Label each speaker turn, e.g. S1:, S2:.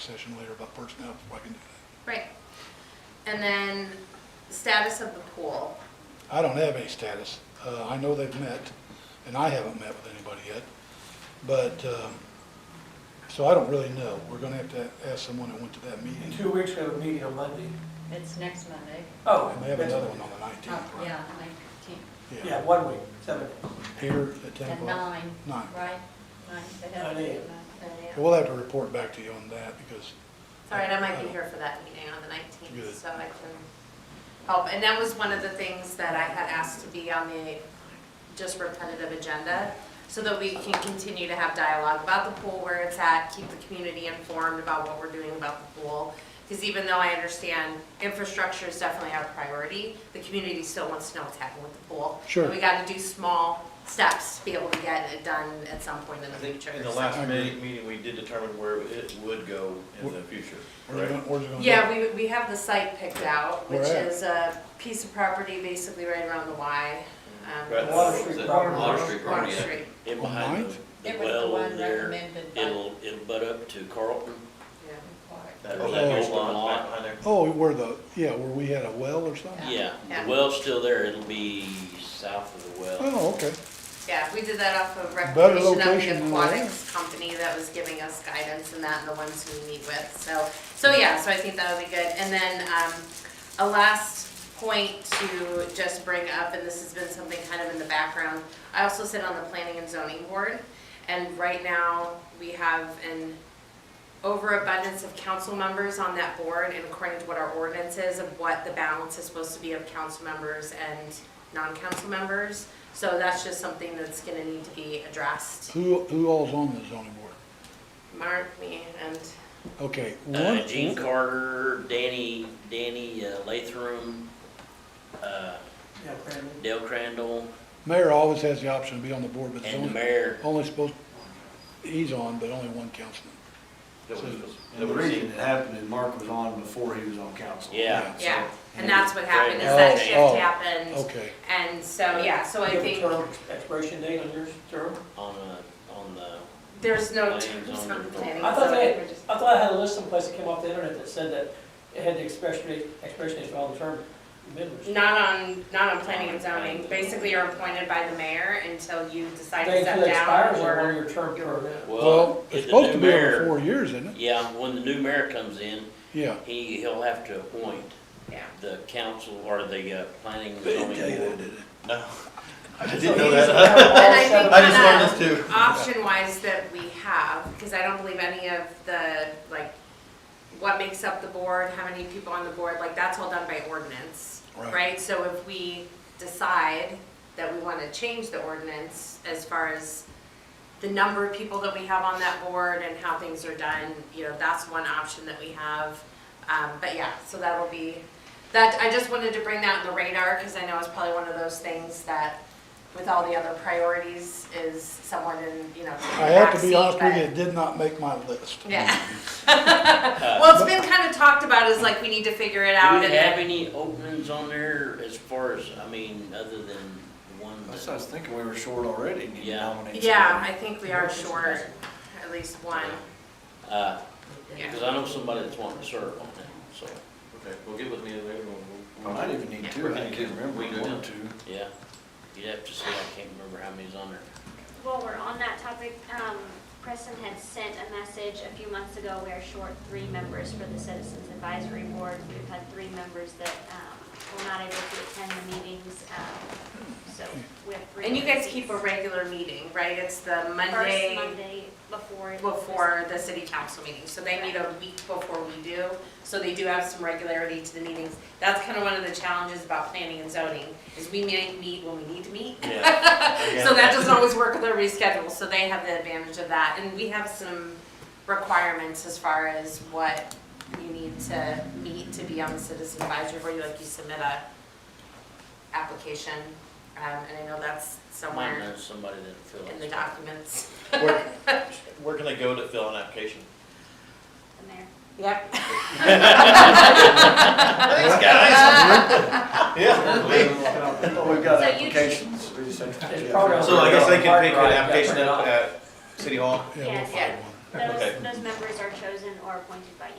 S1: session later about personnel before I can do that.
S2: Right. And then status of the pool.
S1: I don't have any status. Uh, I know they've met, and I haven't met with anybody yet. But, um, so I don't really know. We're gonna have to ask someone that went to that
S3: In
S1: meeting.
S3: two weeks, we have a meeting on Monday.
S4: It's next Monday.
S3: Oh.
S1: And they have
S3: that's-
S1: another one on the nineteenth,
S4: Oh,
S1: right?
S4: Yeah, nineteenth,
S3: Yeah, one week, seven.
S1: Here at ten
S4: at
S1: o'clock.
S4: nine,
S1: Nine.
S4: right? Nine, they have to
S3: Nine
S4: be
S3: a.m.
S4: at nine.
S1: We'll have to report back to you on that, because
S2: All right, I might be here for that meeting on the nineteenth,
S1: Good.
S2: so I can help. And that was one of the things that I had asked to be on the just repetitive agenda, so that we can continue to have dialogue about the pool, where it's at, keep the community informed about what we're doing about the pool. Because even though I understand infrastructure is definitely our priority, the community still wants to know what's happening with the pool.
S1: Sure.
S2: And we got to do small steps to be able to get it done at some point in
S5: I
S2: the
S5: think
S2: future.
S5: in the
S2: so.
S5: last
S1: I agree.
S5: me- meeting, we did determine where it would go in the future,
S1: where's it
S5: correct?
S1: gonna, where's it gonna be?
S2: Yeah, we, we have the site picked out, which
S1: Where at?
S2: is a piece of property basically right around the Y. um,
S5: Right,
S3: Water
S5: that's-
S3: Street
S5: that-
S3: property.
S5: Water Street
S2: Water
S5: property, yeah.
S2: Street,
S6: In
S1: On
S6: behind
S1: ninth?
S6: the
S4: It
S6: the
S4: was the
S6: well
S4: one
S6: in there,
S4: recommended by.
S6: it'll, it'll butt up to Carlton.
S2: yeah.
S5: That
S6: Oh,
S5: that
S1: yeah.
S5: huge lot back behind there.
S1: Oh, where the, yeah, where we had a well or something?
S6: Yeah,
S2: Yeah.
S6: the well's still there, it'll be south of the well.
S1: Oh, okay.
S2: Yeah, we did that off of recommendation of
S1: location
S2: the
S1: than that.
S2: aquatics company that was giving us guidance and that, and the ones who we meet with, so, so yeah, so I think that would be good. And then, um, a last point to just bring up, and this has been something kind of in the background, I also sit on the planning and zoning board, and right now, we have an overabundance of council members on that board and according to what our ordinance is of what the balance is supposed to be of council members and non-council members. So that's just something that's gonna need to be addressed.
S1: Who, who all's on the zoning board?
S2: Mark, me, and,
S1: Okay.
S6: Uh,
S1: one-
S6: Gene Carter, Danny, Danny uh, Latham, uh,
S3: Yeah, Brandon.
S6: Dale Crandall,
S1: Mayor always has the option to be on the board, but it's
S6: and the
S1: only,
S6: mayor.
S1: only supposed, he's on, but only one councilman.
S5: That was-
S7: And the
S5: that was-
S7: reason it happened is Mark was on before he was on council.
S6: Yeah,
S2: yeah, and that's what happened, is
S1: Oh,
S2: that shift
S1: oh,
S2: happened.
S1: Okay.
S2: And so, yeah, so I
S3: Do you have a
S2: think
S3: term Expiration date on yours, term?
S6: on, uh, on the,
S2: there's no
S6: Planning
S2: terms
S6: zoning
S2: on the
S6: board.
S2: planning.
S3: I thought they-
S2: zoning, we're just-
S3: I thought I had a list someplace that came off the internet that said that it had the expiration date, expiration date for all the term members.
S2: Not on, not on planning and zoning, basically you're appointed by the mayor until you decide to
S3: They
S2: step
S3: could expire
S2: down
S3: as
S2: or.
S3: one of your term permit.
S1: Well,
S6: well,
S1: it's
S6: if the
S1: supposed to
S6: new
S1: be over
S6: mayor,
S1: four years, isn't it?
S6: yeah, when the new mayor comes in,
S1: Yeah.
S6: he, he'll have to appoint
S2: Yeah.
S6: the council or the, uh, planning and zoning board.
S5: No, I
S3: So
S5: didn't know
S3: he doesn't
S5: that.
S3: have all
S2: And I
S3: seven-
S2: think
S5: I just learned this too.
S2: option wise that we have, because I don't believe any of the, like, what makes up the board, how many people on the board, like, that's all done by ordinance,
S1: Right.
S2: right? So if we decide that we want to change the ordinance as far as the number of people that we have on that board and how things are done, you know, that's one option that we have. Um, but yeah, so that'll be, that, I just wanted to bring that on the radar, because I know it's probably one of those things that with all the other priorities is someone in, you know.
S1: I have to
S2: backseat,
S1: be honest with
S2: but-
S1: you, it did not make my list.
S2: Yeah. Well, it's been kind of talked about as like, we need to figure it
S6: Do
S2: out.
S6: we
S2: and
S6: have
S2: then-
S6: any openings on there as far as, I mean, other than the one
S7: That's what I
S6: that?
S7: was thinking, we were short already, and you
S6: Yeah.
S7: nominated.
S2: Yeah, I think we are short, at least one.
S6: Uh,
S2: Yeah.
S6: cause I know somebody that's wanting to serve on that, so,
S5: Okay, well, get with me and then
S7: I
S5: we'll-
S7: might
S5: we'll.
S7: even need
S2: Yeah.
S7: two, I can't remember,
S5: We do.
S7: one or two.
S6: yeah. You'd have to see, I can't remember how many's on there.
S8: While we're on that topic, um, Preston had sent a message a few months ago, we are short three members for the Citizens Advisory Board. We've had three members that, um, were not able to attend the meetings, um, so we have three.
S2: And you guys
S8: vacancies.
S2: keep a regular meeting, right? It's the
S8: First
S2: Monday
S8: Monday before.
S2: before the city council meeting. So they meet a week before we do, so they do have some regularity to the meetings. That's kind of one of the challenges about planning and zoning, is we may meet when we need to meet.
S5: Yeah.
S2: So that doesn't always work with their reschedule, so they have the advantage of that. And we have some requirements as far as what you need to meet to be on the citizen advisory board, You, like you submit a application, um, and I know that's
S6: Might
S2: somewhere
S6: know somebody that'll fill
S2: in the
S6: it.
S2: documents.
S5: Where, where can they go to fill an application?
S8: The mayor.
S2: Yep.
S5: Thanks, guys. Yeah.
S7: Well, we've got
S8: So you-
S7: applications, we just have to.
S3: It's probably on
S5: So I guess they can
S3: Park
S5: pick an
S3: ride, yeah,
S5: application
S3: print it
S5: up
S3: out.
S5: at City Hall?
S1: Yeah, we'll
S8: Yeah.
S1: find one.
S8: Those,
S5: Okay.
S8: those members are chosen or appointed by you.